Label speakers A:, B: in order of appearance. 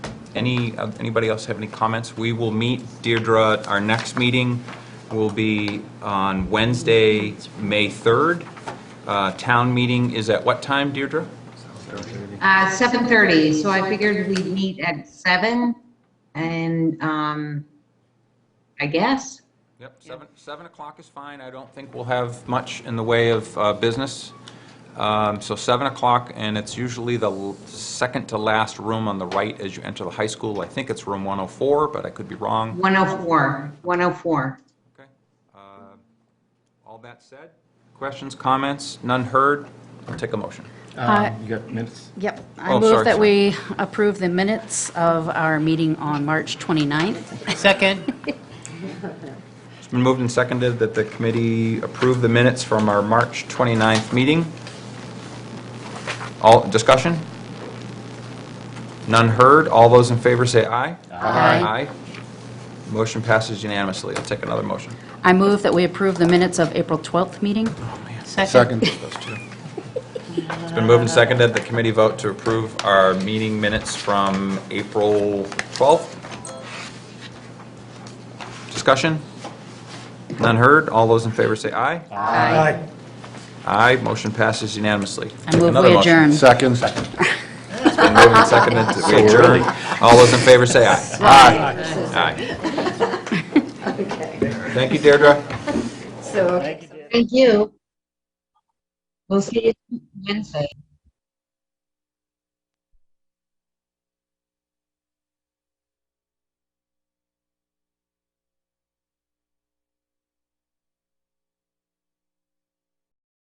A: Any, uh, anybody else have any comments? We will meet, Deirdre, our next meeting will be on Wednesday, May 3rd. Uh, Town meeting is at what time, Deirdre?
B: Uh, 7:30, so I figured we'd meet at seven, and, um, I guess.
A: Yep, seven, seven o'clock is fine. I don't think we'll have much in the way of uh, business. Um, So seven o'clock, and it's usually the l- second to last room on the right as you enter the high school. I think it's room 104, but I could be wrong.
B: 104, 104.
A: Okay. Uh, All that said, questions, comments, none heard? I'll take a motion.
C: Uh,
D: Um, You got minutes?
C: Yep.
A: Oh,
C: I
A: sorry,
C: move that
A: sorry.
C: we approve the minutes of our meeting on March 29th.
E: Second,
A: It's been moved and seconded that the committee approve the minutes from our March 29th meeting. All, discussion? None heard. All those in favor say aye.
C: Aye.
A: Aye. Motion passes unanimously. I'll take another motion.
C: I move that we approve the minutes of April 12th meeting.
A: Oh,
E: second.
D: Second.
A: Those two. It's been moved and seconded. The committee vote to approve our meeting minutes from April 12th. Discussion? None heard. All those in favor say aye.
C: Aye.
A: Aye, motion passes unanimously.
C: I move
A: Another
C: we
A: motion.
C: adjourn.
D: Second.
A: It's been moved and seconded that we adjourn. All those in favor say aye. Aye. Thank you, Deirdre.
B: Thank you. We'll see you Wednesday.